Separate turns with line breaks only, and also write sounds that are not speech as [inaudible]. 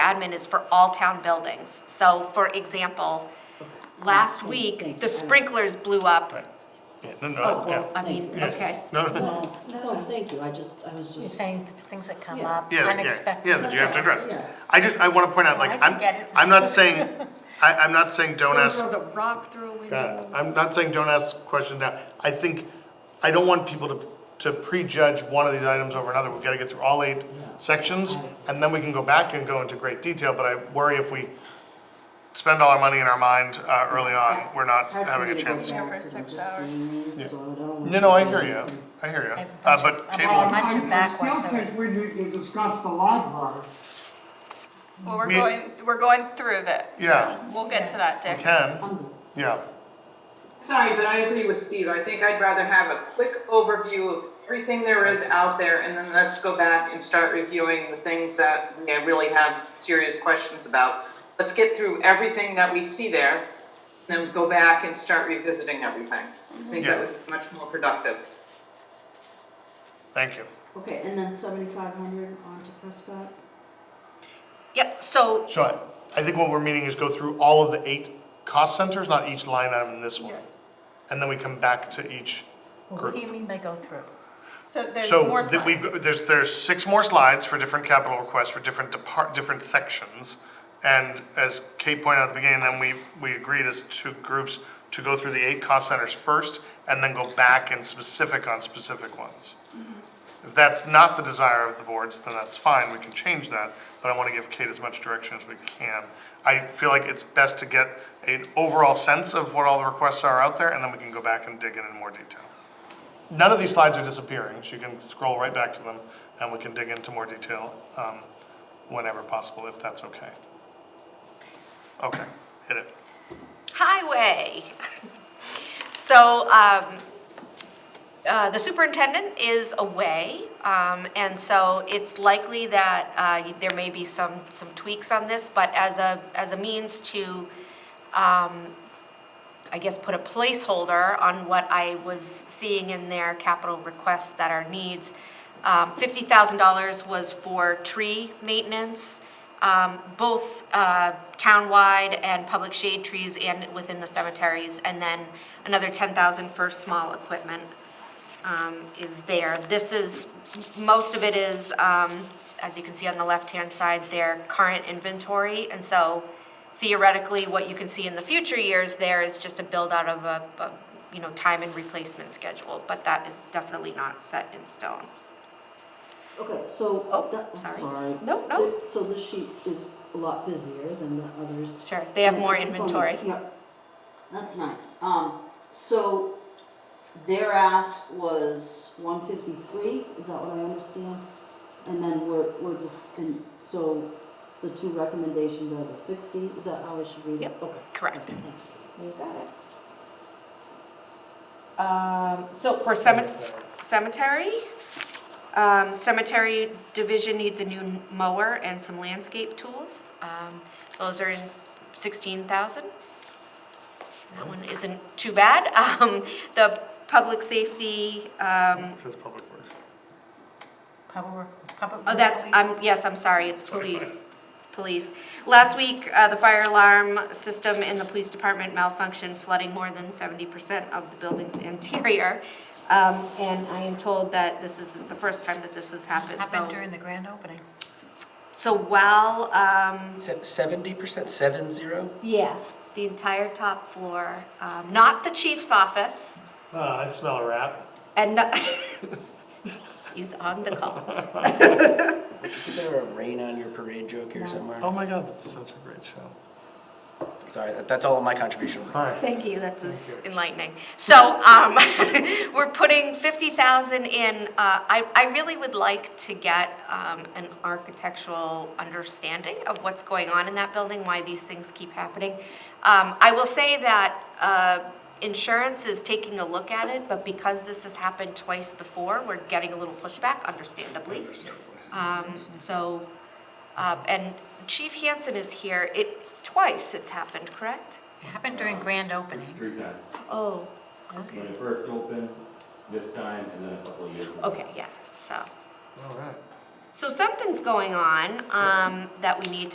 admin is for all town buildings. So for example, last week, the sprinklers blew up.
Yeah, no,
Oh,
no, yeah.
Oh, I mean,
[laughs] Yeah.
okay.
No,
No, no, thank you, I just, I was
You're
just,
saying the things that come
Yeah.
up,
yeah, yeah, yeah,
unexpected.
that you have to address.
Yeah.
I just, I wanna point out, like,
I can
I'm,
get it.
I'm not saying, I, I'm not saying don't
Someone
ask
throws a rock through a
Yeah,
window.
I'm not saying don't ask questions now. I think, I don't want people to, to prejudge one of these items over another. We've gotta get through all eight sections, and then we can go back and go into great detail, but I worry if we spend all our money in our mind, uh, early on, we're not
it's hard for
having
me
a
to go
chance.
back
for
because I'm
six
just seeing these, so I don't.
No, no, I hear you, I hear you, uh, but
I'm
cable.
all
and-
mine. Punch it backwards,
I still think when you, you discuss the library,
Well, we're
We-
going, we're going through that.
Yeah,
We'll get to that, Dick.
Ken, yeah,
Sorry, but I agree with Steve. I think I'd rather have a quick overview of everything there is out there, and then let's go back and start reviewing the things that we really have serious questions about. Let's get through everything that we see there, then go back and start revisiting everything. I think that
Yeah.
would be much more productive.
thank you.
Okay, and then seventy-five hundred on to Prescott?
Yep, so
So I, I think what we're meaning is go through all of the eight cost centers, not each line item in this one. And then we come back to each
What
group.
do you mean by go through?
So there's
So
more
that
slides.
we've, there's, there's six more slides for different capital requests for different depart, different sections. And as Kate pointed out at the beginning, then we, we agreed as two groups to go through the eight cost centers first and then go back and specific on specific ones.
Mm-hmm.
If that's not the desire of the boards, then that's fine, we can change that, but I wanna give Kate as much direction as we can. I feel like it's best to get an overall sense of what all the requests are out there and then we can go back and dig in in more detail. None of these slides are disappearing, so you can scroll right back to them, and we can dig into more detail um, whenever possible, if that's okay. Okay, hit it.
highway. [laughs] So, um, uh, the superintendent is away, um, and so it's likely that, uh, there may be some, some tweaks on this, but as a, as a means to, um, I guess, put a placeholder on what I was seeing in their capital requests that are needs. Um, fifty thousand dollars was for tree maintenance, um, both, uh, townwide and public shade trees and within the cemeteries, and then another ten thousand for small equipment um, is there. This is, most of it is, um, as you can see on the left-hand side, their current inventory. And so theoretically, what you can see in the future years there is just a build-out of a, a, you know, time and replacement schedule. But that is definitely not set in stone.
Okay, so.
Oh,
that- I'm
sorry.
Sorry.
No, no.
The- So the sheet is a lot busier than the others.
Sure, they have more
And I just wanna-
inventory.
Yep, that's nice. Um, so their ask was one fifty-three, is that what I understand? And then we're, we're just, and so the two recommendations are the sixty, is that how I should read it?
Yep,
Okay.
correct.
Okay, thank you. You got it.
Um, so for cemet- cemetery, um, cemetery division needs a new mower and some landscape tools. Um, those are in sixteen thousand. That one isn't too bad. [laughs] Um, the public safety, um,
It says Public Works.
Public, public.
oh, that's,
utilities?
I'm, yes, I'm sorry, it's police. It's police. Last week, uh, the fire alarm system in the police department malfunctioned, flooding more than seventy percent of the building's [laughs] interior. Um, and I am told that this isn't the first time that this has happened, so.
Happened during the grand opening.
So while, um,
Seventy percent, seven zero?
yeah, the entire top floor, um, not the chief's office,
Uh, I smell a rat.
and not, [laughs] he's on the call.
Is there a rain on your parade joke here somewhere?
Oh my god, that's such a great show.
Sorry, that- that's all of my contribution.
Alright,
Thank you, that was enlightening. So, um, [laughs] we're putting fifty thousand in, uh, I, I really would like to get, um, an architectural understanding of what's going on in that building, why these things keep happening. Um, I will say that, uh, insurance is taking a look at it, but because this has happened twice before, we're getting a little pushback, understandably. Um, so, uh, and Chief Hansen is here, it, twice it's happened, correct?
It Happened during grand opening.
Three times.
Oh,
When it first opened, this time, and then a couple of years ago.
okay, yeah, so,
alright.
so something's going on, um, that we need